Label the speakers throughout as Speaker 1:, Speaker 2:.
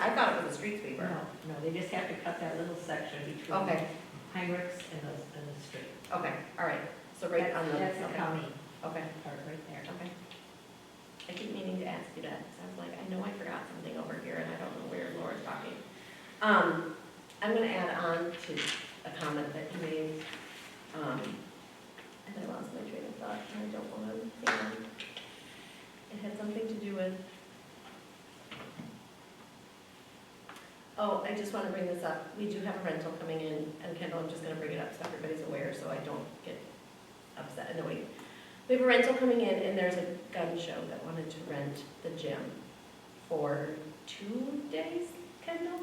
Speaker 1: I thought it was a street sweeper.
Speaker 2: No, no, they just have to cut that little section between
Speaker 1: Okay,
Speaker 2: Heinrichs and the, and the street.
Speaker 1: okay, all right, so right on the,
Speaker 2: That's the
Speaker 1: okay,
Speaker 2: county
Speaker 1: okay,
Speaker 2: part right there.
Speaker 1: okay. I keep meaning to ask you that, 'cause I was like, I know I forgot something over here, and I don't know where Laura's talking. Um, I'm gonna add on to a comment that you made, um, and I lost my train of thought, and I don't wanna, hang on. It had something to do with. Oh, I just wanna bring this up, we do have a rental coming in, and Kendall, I'm just gonna bring it up so everybody's aware, so I don't get upset, annoyed. We have a rental coming in, and there's a gun show that wanted to rent the gym for two days, Kendall?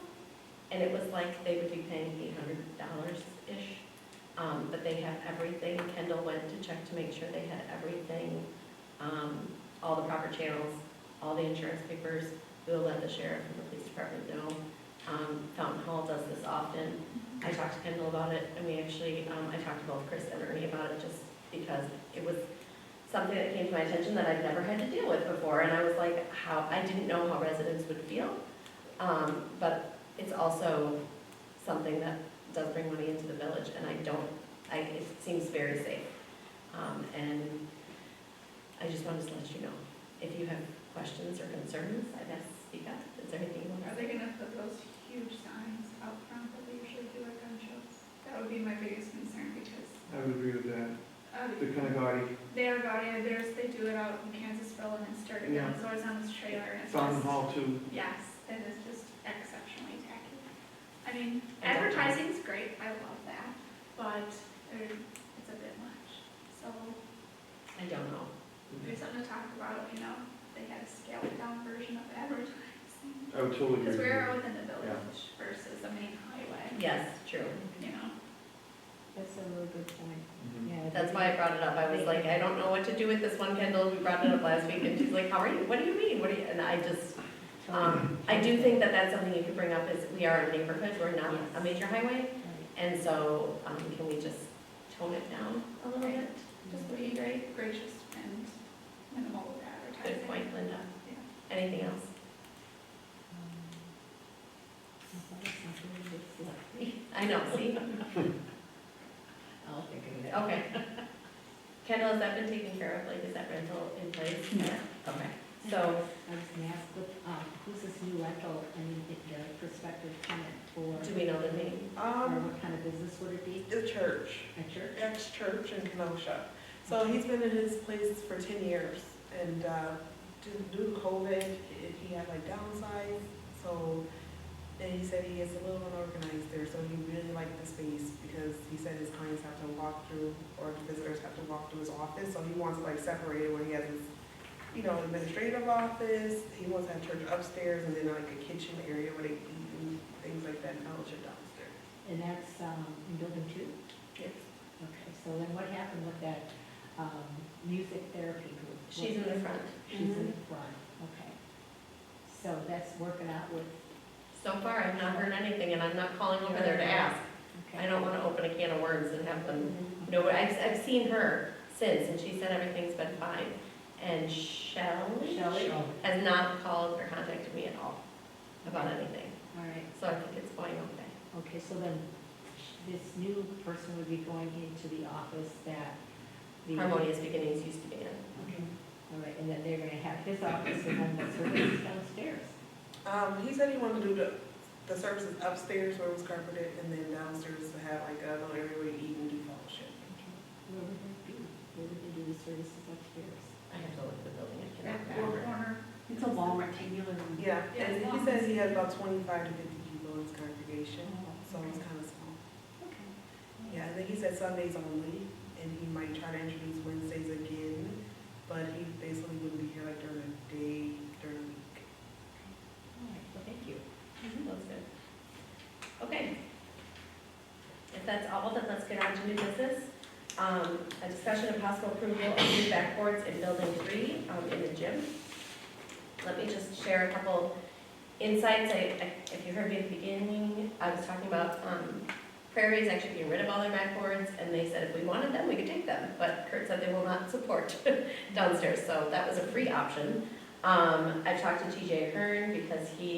Speaker 1: And it was like they would be paying eight hundred dollars-ish, um, but they had everything, Kendall went to check to make sure they had everything, um, all the proper channels, all the insurance papers, we'll let the sheriff and the police department know. Um, Fountain Hall does this often, I talked to Kendall about it, and we actually, um, I talked to both Chris and Ernie about it, just because it was something that came to my attention that I'd never had to deal with before, and I was like, how, I didn't know how residents would feel. Um, but it's also something that does bring money into the village, and I don't, I, it seems very safe. Um, and I just wanted to let you know, if you have questions or concerns, I guess, speak up, is there anything you want to?
Speaker 3: Are they gonna put those huge signs out front that they usually do at gun shows? That would be my biggest concern because,
Speaker 4: I would agree with that.
Speaker 3: uh,
Speaker 4: They're kind of gaudy.
Speaker 3: they are gaudy, and there's, they do it out in Kansasville and in Sturgis, and it's always on this trailer, and it's
Speaker 4: Fountain
Speaker 3: just,
Speaker 4: Hall too.
Speaker 3: yes, it is just exceptionally tacky. I mean,
Speaker 1: I don't know.
Speaker 3: advertising's great, I love that, but there, it's a bit much. So,
Speaker 1: I don't know.
Speaker 3: there's something to talk about, you know, they had a scaled down version of advertising.
Speaker 4: I would totally agree.
Speaker 3: Because
Speaker 4: with
Speaker 3: we're
Speaker 4: you.
Speaker 3: within the village versus the main highway,
Speaker 1: Yes, true.
Speaker 3: you know?
Speaker 2: That's a really good point.
Speaker 4: Mhm.
Speaker 2: Yeah.
Speaker 1: That's why I brought it up. I was like, I don't know what to do with this one, Kendall. We brought it up last week and she's like, how are you? What do you mean? What do you, and I just, um, I do think that that's something you could bring up is we are a neighborhood. We're not a major highway. And so, um, can we just tone it down a little bit?
Speaker 2: Um,
Speaker 3: Just be very gracious and minimal with advertising.
Speaker 1: Good point, Linda. Anything else? I know, see?
Speaker 2: I'll think of it.
Speaker 1: Okay. Kendall, has that been taken care of? Like, is that rental in place?
Speaker 2: No.
Speaker 1: Okay. So,
Speaker 2: I was gonna ask, what, um, who's this new rental, I mean, the- the prospective tenant for,
Speaker 1: do we know the name?
Speaker 2: or
Speaker 5: Um,
Speaker 2: what kind of business would it be?
Speaker 5: the church,
Speaker 2: A church?
Speaker 5: ex-church in Kenosha. So he's been in his place for ten years and, uh, due- due to COVID, it- he had like downsized. So, and he said he is a little unorganized there, so he really liked the space because he said his clients have to walk through, or the visitors have to walk through his office, so he wants it like separated where he has his, you know, administrative office, he wants to have church upstairs and then like a kitchen area where they eat and things like that, and church downstairs.
Speaker 2: And that's, um, in building two? Okay, so then what happened with that, um, music therapy group?
Speaker 1: She's in the front. Mm-hmm.
Speaker 2: She's in the front, okay. So that's working out with,
Speaker 1: So far, I've not heard anything, and I'm not calling over there to ask.
Speaker 2: okay.
Speaker 1: I don't want to open a can of worms and have them,
Speaker 2: Okay.
Speaker 1: no, I've, I've seen her since, and she said everything's been fine. And Shelley
Speaker 2: Shelley? All
Speaker 1: has not called or contacted me at all about anything,
Speaker 2: right,
Speaker 1: so I think it's going okay.
Speaker 2: okay, so then this new person would be going into the office that the.
Speaker 1: Harmonious Beginnings used to be in.
Speaker 2: Okay, all right, and then they're gonna have his office and then what's her business downstairs?
Speaker 5: Um, he said he wanted to do the, the services upstairs where it was carpeted, and then downstairs to have like a little area where you eat and do fellowship.
Speaker 2: Okay, Where would that be?
Speaker 1: Mm-hmm.
Speaker 2: Where would they do the services upstairs?
Speaker 1: I have to look at the building, I cannot
Speaker 3: That
Speaker 1: remember.
Speaker 3: corner,
Speaker 2: It's a long rectangular room.
Speaker 5: Yeah,
Speaker 3: Yeah,
Speaker 5: and he
Speaker 3: long.
Speaker 5: says he has about twenty-five to fifty people in his congregation, so
Speaker 2: Oh,
Speaker 5: it's
Speaker 2: okay.
Speaker 5: kind of small.
Speaker 2: Okay.
Speaker 5: Yeah, and then he said Sundays only, and he might try to introduce Wednesdays again, but he basically wouldn't be here like during the day, during the week.
Speaker 2: All right, well, thank you.
Speaker 1: That's Mm-hmm, good. Okay. If that's all, then let's get on to new business. Um, a discussion of possible approval of new backboards in building three, um, in the gym. Let me just share a couple insights. I, I- if you heard me at the beginning, I was talking about, um, Prairie's actually getting rid of all their backboards, and they said if we wanted them, we could take them, but Kurt said they will not support downstairs, so that was a free option. Um, I talked to TJ Hearn because he